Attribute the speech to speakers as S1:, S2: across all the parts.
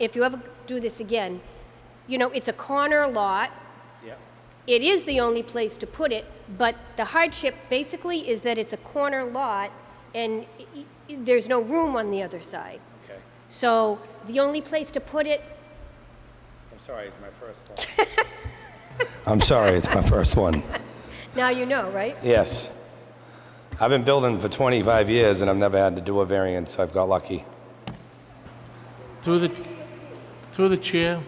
S1: if you ever do this again, you know, it's a corner lot.
S2: Yeah.
S1: It is the only place to put it, but the hardship basically is that it's a corner lot and i- i- there's no room on the other side.
S2: Okay.
S1: So the only place to put it,
S2: I'm sorry, it's my first one. I'm sorry, it's my first one.
S1: now you know, right?
S2: Yes. I've been building for 25 years and I've never had to do a variance, so I've got lucky.
S3: Through the, through the chair,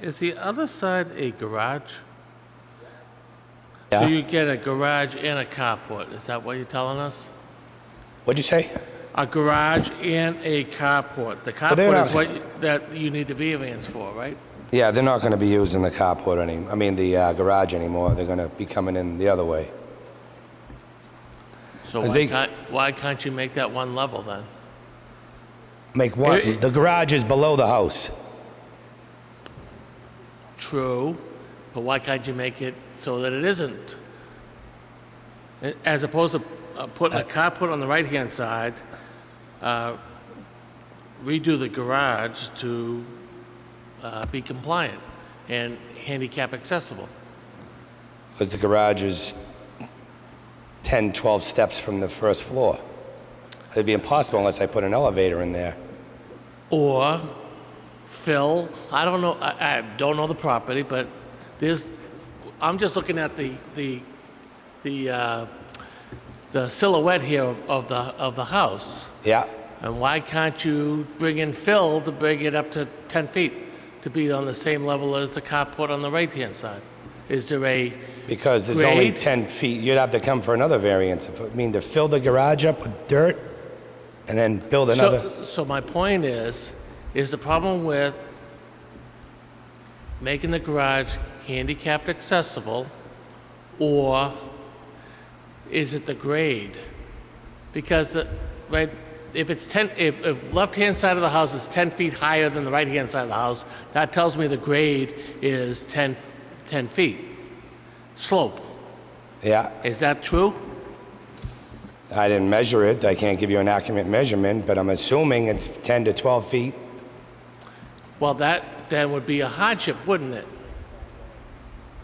S3: is the other side a garage? So
S2: Yeah.
S3: you get a garage and a carport, is that what you're telling us?
S2: What'd you say?
S3: A garage and a carport. The
S2: they're
S3: carport
S2: not-
S3: is what, you- that you need the variance for, right?
S2: Yeah, they're not going to be using the carport any, I mean, the uh, garage anymore. They're going to be coming in the other way.
S3: So
S2: I
S3: why
S2: think-
S3: can't, why can't you make that one level then?
S2: Make what?
S3: It- it-
S2: the garage is below the house.
S3: True, but why can't you make it so that it isn't? A- As opposed to uh, putting a carport on the right-hand side, uh, redo the garage to uh, be compliant and handicap accessible.
S2: Because the garage is 10, 12 steps from the first floor. It'd be impossible unless I put an elevator in there.
S3: Or fill, I don't know, I, I don't know the property, but there's, I'm just looking at the, the, the, uh, the silhouette here of of the, of the house.
S2: Yeah.
S3: And why can't you bring in fill to bring it up to 10 feet, to be on the same level as the carport on the right-hand side? Is there a,
S2: Because there's only
S3: Grade?
S2: 10 feet, you'd have to come for another variance. If- I mean, to fill the garage up with dirt and then build another.
S3: so, so my point is, is the problem with making the garage handicapped accessible, or is it the grade? Because, uh, right, if it's 10, if, if left-hand side of the house is 10 feet higher than the right-hand side of the house, that tells me the grade is 10, 10 feet. Slope,
S2: Yeah,
S3: is that true?
S2: I didn't measure it, I can't give you an accurate measurement, but I'm assuming it's 10 to 12 feet.
S3: Well, that then would be a hardship, wouldn't it?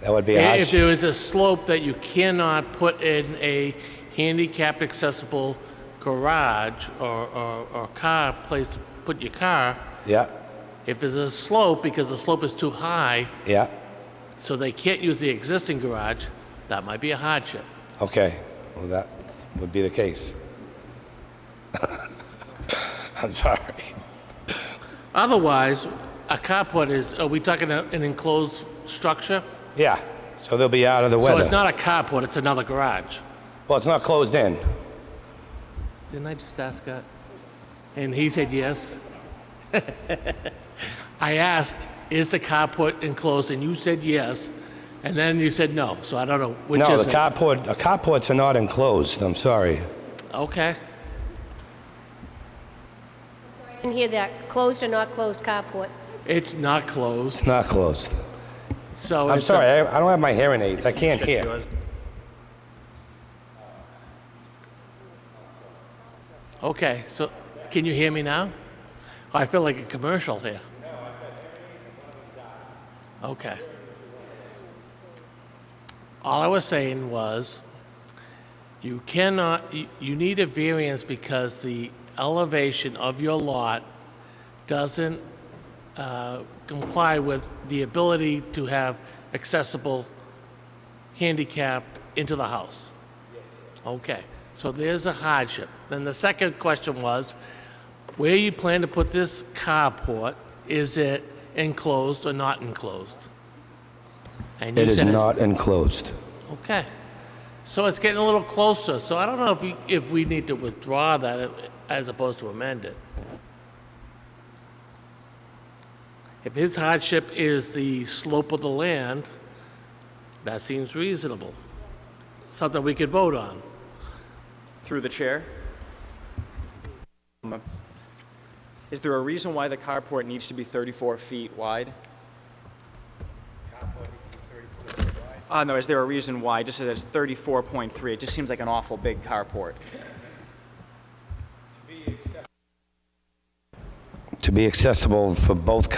S2: That would be a
S3: If
S2: hardship.
S3: there is a slope that you cannot put in a handicapped accessible garage or, or, or car place to put your car,
S2: Yeah,
S3: if there's a slope, because the slope is too high,
S2: yeah,
S3: so they can't use the existing garage, that might be a hardship.
S2: okay. Well, that would be the case. I'm sorry.
S3: Otherwise, a carport is, are we talking a- an enclosed structure?
S2: Yeah, so they'll be out of the
S3: So it's
S2: weather.
S3: not a carport, it's another garage.
S2: Well, it's not closed in.
S3: Didn't I just ask that? And he said yes. I asked, is the carport enclosed? And you said yes. And then you said no. So I don't know which
S2: No,
S3: is
S2: the
S3: it.
S2: carport, the carports are not enclosed, I'm sorry.
S3: okay.
S1: I didn't hear that, closed or not closed carport.
S3: It's not closed.
S2: It's not closed.
S3: so
S2: I'm
S3: it's a-
S2: sorry, I I don't have my hearing aids, I can't hear.
S3: okay. So can you hear me now? Oh, I feel like a commercial here. Okay. All I was saying was you cannot, you, you need a variance because the elevation of your lot doesn't uh, comply with the ability to have accessible handicapped into the house? Okay, so there's a hardship. Then the second question was, where you plan to put this carport, is it enclosed or not enclosed? And you
S2: It is
S3: said it's-
S2: not enclosed.
S3: Okay. So it's getting a little closer, so I don't know if we, if we need to withdraw that as opposed to amend it. If his hardship is the slope of the land, that seems reasonable. Something we could vote on.
S4: Through the chair. Um, Is there a reason why the carport needs to be 34 feet wide? Uh, no, is there a reason why? Just says it's 34.3, it just seems like an awful big carport.
S2: To be accessible for both